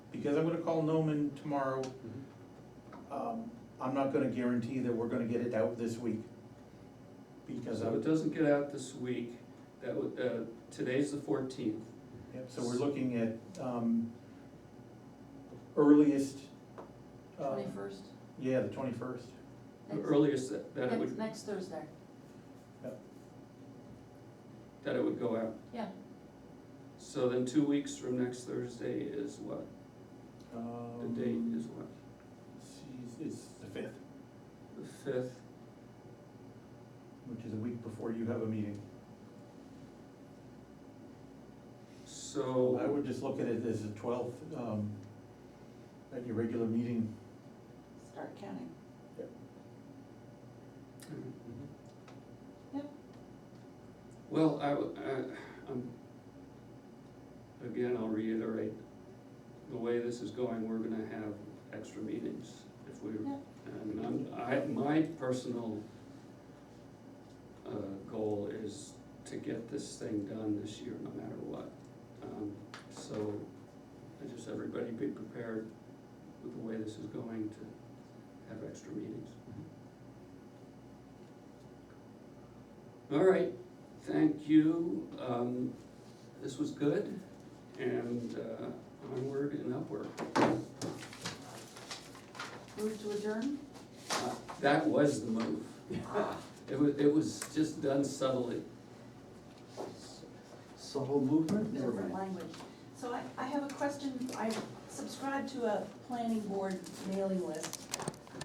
because I'm gonna call Noman tomorrow. Um, I'm not gonna guarantee that we're gonna get it out this week. Because So I'm, it doesn't get out this week, that would, uh, today's the fourteenth, yep, so we're looking at, um, earliest. um, Twenty-first, Yeah, the twenty-first. the earliest that, that Uh, it next, would, next Thursday, that it would go out. yeah, So then two weeks from next Thursday is what? The Um, date is what? It's the fifth, The fifth, which is a week before you have a meeting. I so, would just look at it as the twelfth, um, at your regular meeting. start counting. Yep. Mm-hmm. well, I, w- I, am again, I'll reiterate, the way this is going, we're gonna have extra meetings if we, Yeah. and I'm, I, my personal uh, goal is to get this thing done this year, no matter what. Um, So, I just, everybody be prepared with the way this is going to have extra meetings. All right, thank you, um, this was good, and, uh, onward and upward. Move to adjourn? Uh, That was the move. It was, it was just done subtly. Subtle movement? Never different mind. language. So I, I have a question, I subscribe to a planning board mailing list,